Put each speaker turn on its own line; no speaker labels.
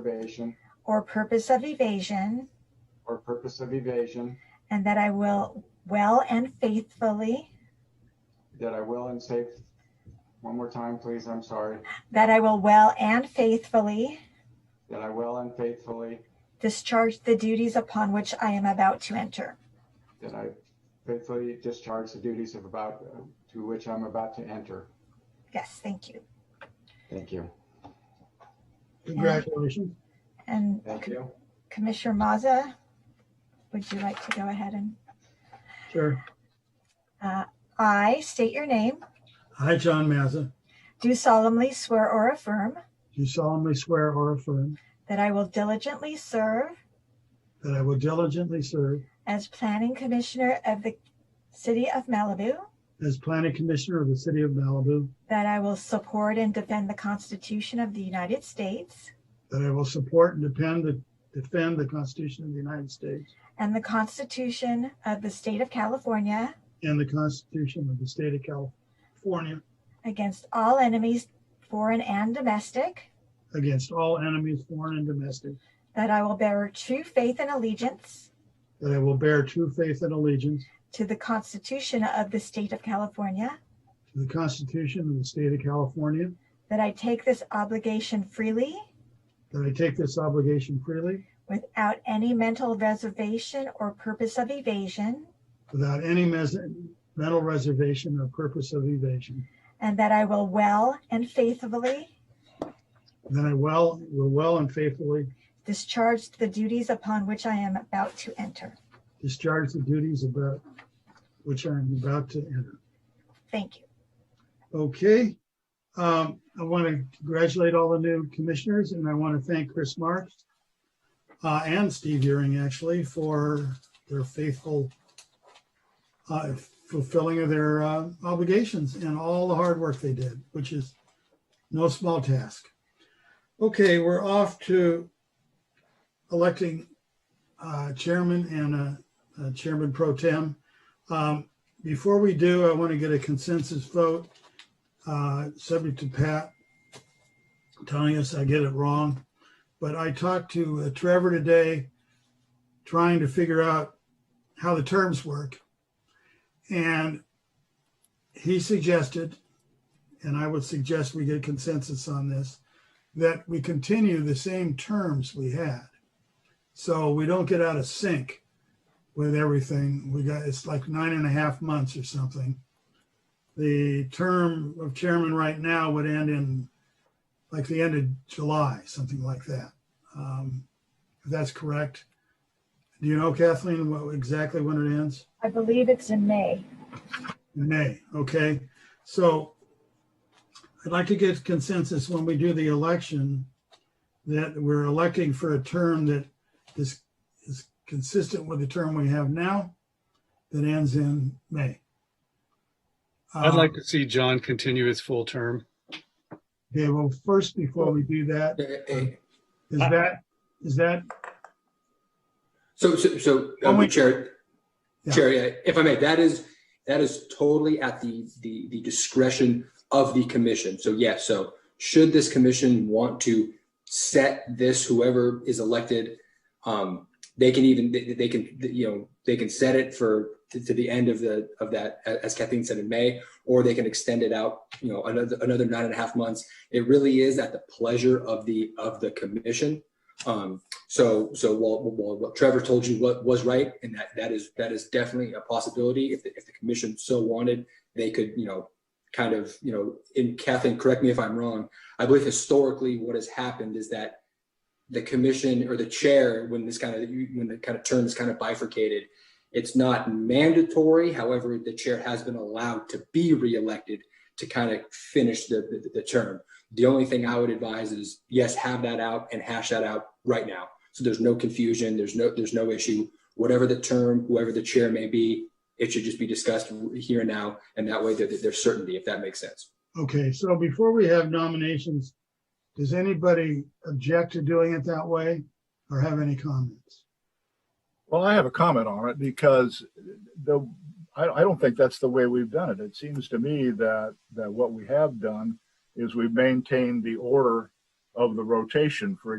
reservation
or purpose of evasion,
or purpose of evasion,
and that I will well and faithfully,
that I will and safe, one more time, please, I'm sorry,
that I will well and faithfully
that I will and faithfully,
discharge the duties upon which I am about to enter.
that I faithfully discharge the duties of about, to which I'm about to enter.
Yes, thank you.
Thank you.
Congratulations.
And
Thank you.
Commissioner Mazza, would you like to go ahead and uh,
Sure.
I state your name,
I, John Mazza,
do solemnly swear or affirm
do solemnly swear or affirm
that I will diligently serve
that I will diligently serve
as planning commissioner of the city of Malibu,
as planning commissioner of the city of Malibu,
that I will support and defend the Constitution of the United States
that I will support and depend, defend the Constitution of the United States
and the Constitution of the state of California
and the Constitution of the state of California
against all enemies, foreign and domestic,
against all enemies, foreign and domestic,
that I will bear true faith and allegiance
that I will bear true faith and allegiance
to the Constitution of the state of California,
to the Constitution of the state of California,
that I take this obligation freely
that I take this obligation freely
without any mental reservation or purpose of evasion,
without any mes- mental reservation or purpose of evasion,
and that I will well and faithfully
Then I well, will well and faithfully
discharge the duties upon which I am about to enter.
discharge the duties about which I'm about to enter.
Thank you.
Okay. Um, I want to congratulate all the new commissioners and I want to thank Chris Marks uh, and Steve Euring actually for their faithful uh, fulfilling of their uh, obligations and all the hard work they did, which is no small task. Okay, we're off to electing uh, chairman and uh, uh, chairman pro tem. Um, Before we do, I want to get a consensus vote, uh, subject to Pat telling us I get it wrong. But I talked to uh, Trevor today, trying to figure out how the terms work. And he suggested, and I would suggest we get consensus on this, that we continue the same terms we had. So we don't get out of sync with everything. We got, it's like nine and a half months or something. The term of chairman right now would end in like the end of July, something like that. Um, If that's correct. Do you know Kathleen, what, exactly when it ends?
I believe it's in May.
Nay, okay, so I'd like to get consensus when we do the election that we're electing for a term that is, is consistent with the term we have now that ends in May.
I'd like
Um,
to see John continue his full term.
Okay, well, first, before we do that,
Uh,
is that, is that,
So, so, so,
Oh,
um,
wait.
Chair,
Yeah.
Chair, yeah, if I may, that is, that is totally at the, the, the discretion of the commission. So yes, so should this commission want to set this, whoever is elected, um, they can even, they, they can, you know, they can set it for, to, to the end of the, of that, a- as Kathleen said in May, or they can extend it out, you know, another, another nine and a half months. It really is at the pleasure of the, of the commission. Um, so, so while, while what Trevor told you what was right, and that, that is, that is definitely a possibility. If, the- if the commission so wanted, they could, you know, kind of, you know, in Kathleen, correct me if I'm wrong. I believe historically what has happened is that the commission or the chair, when this kind of, when the kind of term is kind of bifurcated, it's not mandatory. However, the chair has been allowed to be reelected to kind of finish the, the, the term. The only thing I would advise is, yes, have that out and hash that out right now. So there's no confusion, there's no, there's no issue. Whatever the term, whoever the chair may be, it should just be discussed here and now, and that way there, there's certainty, if that makes sense.
okay, so before we have nominations, does anybody object to doing it that way or have any comments?
Well, I have a comment on it because the, I, I don't think that's the way we've done it. It seems to me that, that what we have done is we've maintained the order of the rotation. For